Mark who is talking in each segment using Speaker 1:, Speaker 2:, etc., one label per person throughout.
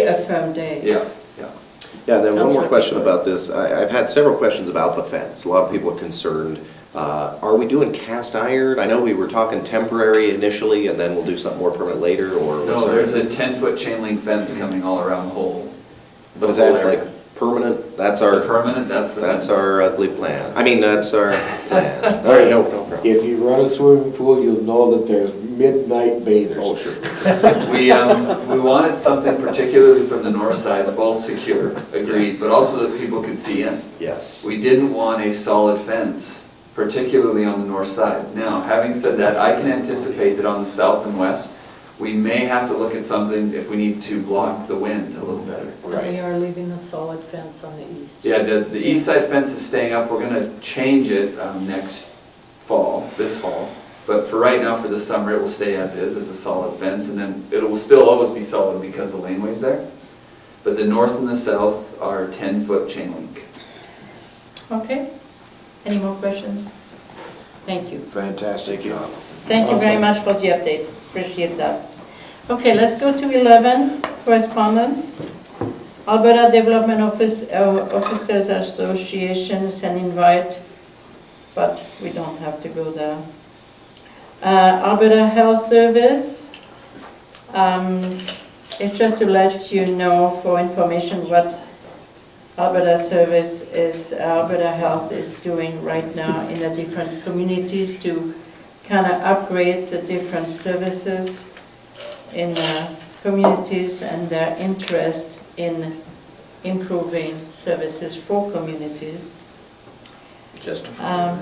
Speaker 1: a firm date.
Speaker 2: Yeah, yeah.
Speaker 3: Yeah, and then one more
Speaker 1: Counselor.
Speaker 3: question about this. I, I've had several questions about the fence. A lot of people are concerned. Uh, Are we doing cast iron? I know we were talking temporary initially, and then we'll do something more permanent later, or what's
Speaker 2: No,
Speaker 3: our-
Speaker 2: there's a ten-foot chain link fence coming all around the whole, the
Speaker 3: But is
Speaker 2: whole
Speaker 3: that like
Speaker 2: area.
Speaker 3: permanent? That's
Speaker 2: the
Speaker 3: our,
Speaker 2: Permanent, that's the fence.
Speaker 3: that's our ugly plan. I mean, that's our plan. All right, no, no problem.
Speaker 4: If you run a swimming pool, you'll know that there's midnight bathers.
Speaker 3: Oh, sure.
Speaker 2: We, um, we wanted something particularly from the north side, both secure, agreed, but also that people could see in.
Speaker 3: Yes.
Speaker 2: We didn't want a solid fence, particularly on the north side. Now, having said that, I can anticipate that on the south and west, we may have to look at something if we need to block the wind a little better.
Speaker 1: They are leaving a solid fence on the east.
Speaker 2: Yeah, the, the east side fence is staying up, we're gonna change it, um, next fall, this fall. But for right now, for the summer, it will stay as is, as a solid fence, and then it will still always be solid because the laneway's there. But the north and the south are ten-foot chain link.
Speaker 1: Okay. Any more questions? Thank you.
Speaker 4: Fantastic job.
Speaker 1: Thank you very
Speaker 4: Awesome.
Speaker 1: much for the update. Appreciate that. Okay, let's go to 11, correspondence. Alberta Development Office uh, Officers Association is an invite, but we don't have to go there. Uh, Alberta Health Service, um, it's just to let you know for information what Alberta Service is, Alberta Health is doing right now in the different communities to kind of upgrade the different services in the communities and their interest in improving services for communities.
Speaker 4: Just.
Speaker 1: Um,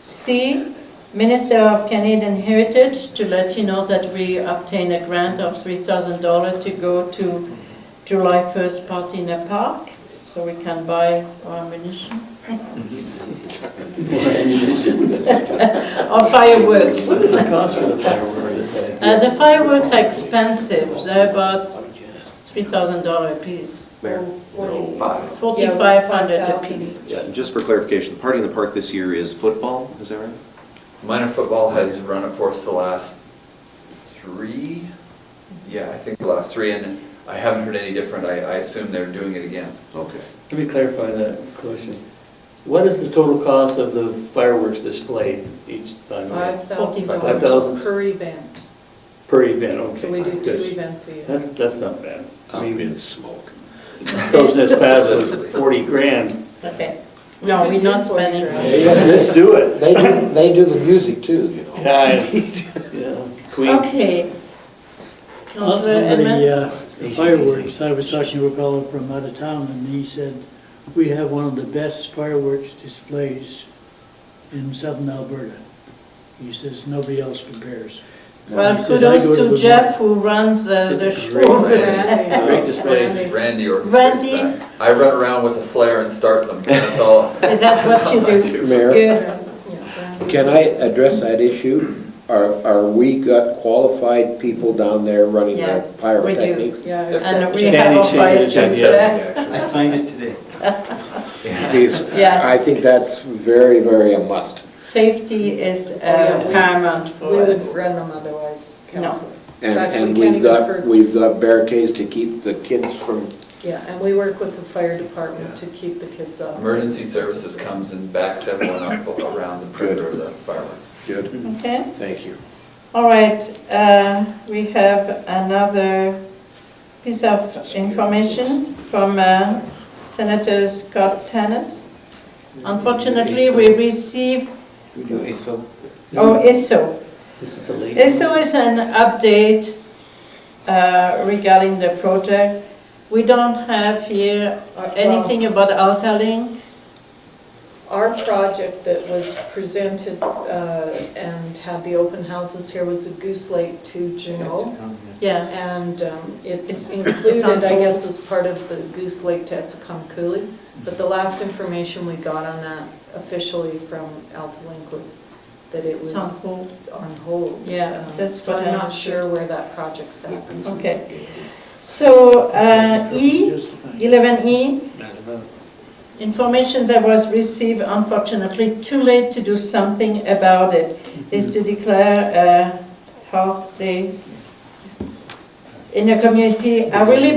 Speaker 1: C, Minister of Canadian Heritage, to let you know that we obtained a grant of $3,000 to go to July 1st party in a park, so we can buy our ammunition. Or fireworks.
Speaker 5: What is the cost for the fireworks?
Speaker 1: Uh, The fireworks are expensive, they're about $3,000 a piece,
Speaker 3: Mayor?
Speaker 1: $4,500 a piece.
Speaker 3: Yeah, Just for clarification, the party in the park this year is football, is that right?
Speaker 2: Minor football has run it for us the last three, yeah, I think the last three, and I haven't heard any different, I, I assume they're doing it again.
Speaker 3: Okay.
Speaker 5: Let me clarify that question. What is the total cost of the fireworks displayed each time? Five
Speaker 6: $5,000
Speaker 5: thousand?
Speaker 6: per event.
Speaker 5: Per event, okay.
Speaker 6: So we do two
Speaker 5: good.
Speaker 6: events a year.
Speaker 5: That's, that's not bad. I mean,
Speaker 4: smoke.
Speaker 5: those this past was forty grand.
Speaker 1: Okay. No, we're not spending.
Speaker 5: Let's do it.
Speaker 4: They do, they do the music too, you know.
Speaker 5: Yeah, I- yeah. Queen,
Speaker 1: Okay.
Speaker 7: On
Speaker 1: Councillor
Speaker 7: on the
Speaker 1: Edmonds?
Speaker 7: uh, fireworks, I was talking to a fellow from out of town, and he said, "We have one of the best fireworks displays in southern Alberta." He says, "Nobody else compares."
Speaker 1: Well,
Speaker 7: He says, "I go
Speaker 1: kudos to
Speaker 7: the-
Speaker 1: Jeff who runs the
Speaker 5: It's
Speaker 1: the
Speaker 5: a
Speaker 1: show.
Speaker 5: great
Speaker 1: over
Speaker 2: event.
Speaker 1: there.
Speaker 5: great display.
Speaker 2: Randy orchestrates
Speaker 1: Randy?
Speaker 2: that. I run around with a flare and start them, that's all.
Speaker 1: Is that what you
Speaker 2: That's all I
Speaker 1: do?
Speaker 4: Mayor,
Speaker 1: Good.
Speaker 4: can I address that issue? Are, are we got qualified people down there running
Speaker 1: Yeah,
Speaker 4: their pyrotechnics?
Speaker 6: Yeah,
Speaker 1: And
Speaker 6: except
Speaker 1: we have
Speaker 5: Standing
Speaker 1: our
Speaker 5: shade,
Speaker 1: fire
Speaker 5: yes,
Speaker 1: chiefs
Speaker 5: yes.
Speaker 1: there.
Speaker 2: Yeah,
Speaker 5: I signed it today.
Speaker 4: Geez,
Speaker 1: Yes.
Speaker 4: I think that's very, very a must.
Speaker 1: Safety is uh,
Speaker 6: Oh, yeah, we-
Speaker 1: paramount
Speaker 6: we
Speaker 1: for
Speaker 6: would
Speaker 1: us.
Speaker 6: run them otherwise,
Speaker 1: No.
Speaker 6: council.
Speaker 4: And,
Speaker 6: Fact, we
Speaker 4: and
Speaker 6: can't
Speaker 4: we've
Speaker 6: even
Speaker 4: got,
Speaker 6: hurt-
Speaker 4: we've got barricades to keep the kids from,
Speaker 6: Yeah, and we work with the fire department to keep the kids
Speaker 2: actually.
Speaker 6: off.
Speaker 2: Emergency services comes and backs everyone up around the perimeter of the fireworks.
Speaker 4: good,
Speaker 1: Okay.
Speaker 4: thank you.
Speaker 1: All right, uh, we have another piece of information from uh, Senator Scott Tanis. Unfortunately, we received,
Speaker 5: We do ASO.
Speaker 1: oh, ISO.
Speaker 5: This is the latest.
Speaker 1: ISO is an update uh, regarding the project. We don't have here anything about Altalink.
Speaker 6: Our project that was presented uh, and had the open houses here was a Goose Lake to Juneau.
Speaker 1: Yeah,
Speaker 6: And um,
Speaker 1: It's-
Speaker 6: it's
Speaker 1: it's
Speaker 6: included,
Speaker 1: on
Speaker 6: I
Speaker 1: hold.
Speaker 6: guess, as part of the Goose Lake to Etzcomkuli. But the last information we got on that officially from Alta Link was that it
Speaker 1: it's
Speaker 6: was
Speaker 1: on hold.
Speaker 6: on hold.
Speaker 1: Yeah,
Speaker 6: Um,
Speaker 1: that's
Speaker 6: So
Speaker 1: what
Speaker 6: I'm
Speaker 1: I-
Speaker 6: not sure where that project's at.
Speaker 1: Okay. So uh, E,
Speaker 7: Justifying.
Speaker 1: 11E, information that was received unfortunately too late to do something about it, is to declare a health day in the community. I really